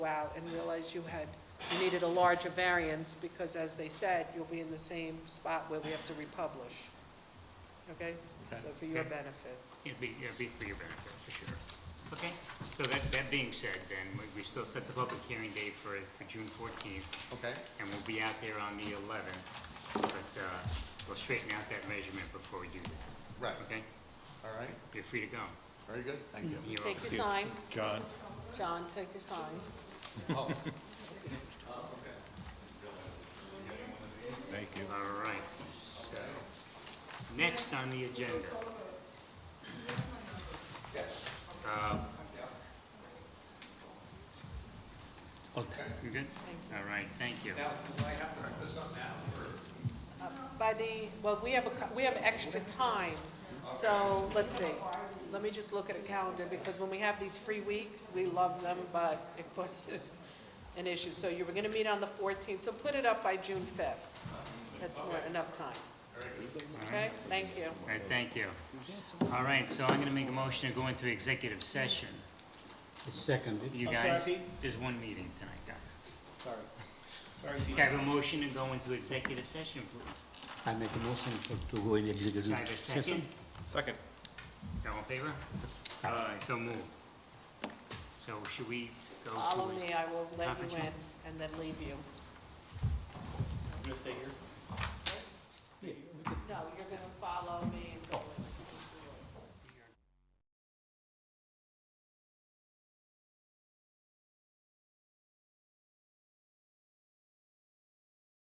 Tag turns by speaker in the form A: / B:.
A: go out and realize you had, you needed a larger variance, because as they said, you'll be in the same spot where we have to republish. Okay?
B: Okay.
A: So for your
B: Okay.
A: benefit.
B: It'd be, it'd be for your benefit, for sure. Okay, so that, that being said, then, we- we still set the public hearing date for, for June fourteenth,
C: Okay,
B: and we'll be out there on the eleventh, but, uh, we'll straighten out that measurement before we do that,
C: right,
B: okay?
C: all right,
B: You're free to go.
C: very good, thank you.
B: You're
A: Take
B: welcome.
A: your sign,
D: John,
A: John, take your sign.
D: thank you.
B: All right, so, next on the agenda. Uh, You good? All right, thank you.
A: By the, well, we have a, cou- we have extra time, so, let's see. Let me just look at a calendar, because when we have these free weeks, we love them, but it causes an issue. So you were gonna meet on the fourteenth, so put it up by June fifth. That's more, enough time. Okay, thank you.
B: All right, thank you. All right, so I'm gonna make a motion to go into executive session. Second. You
E: I'm sorry,
B: guys,
E: Pete?
B: there's one meeting tonight, guys.
E: Sorry. Sorry, Dean.
B: Can I have a motion to go into executive session, please?
F: I make a motion for, to go in executive
B: Can I have a
F: session.
B: second?
E: Second.
B: All in favor? Aye. So moved. So should we go
A: Follow
B: to,
A: me, I will let you
B: Conference room.
A: in and then leave you.
E: I'm gonna stay here. Oh.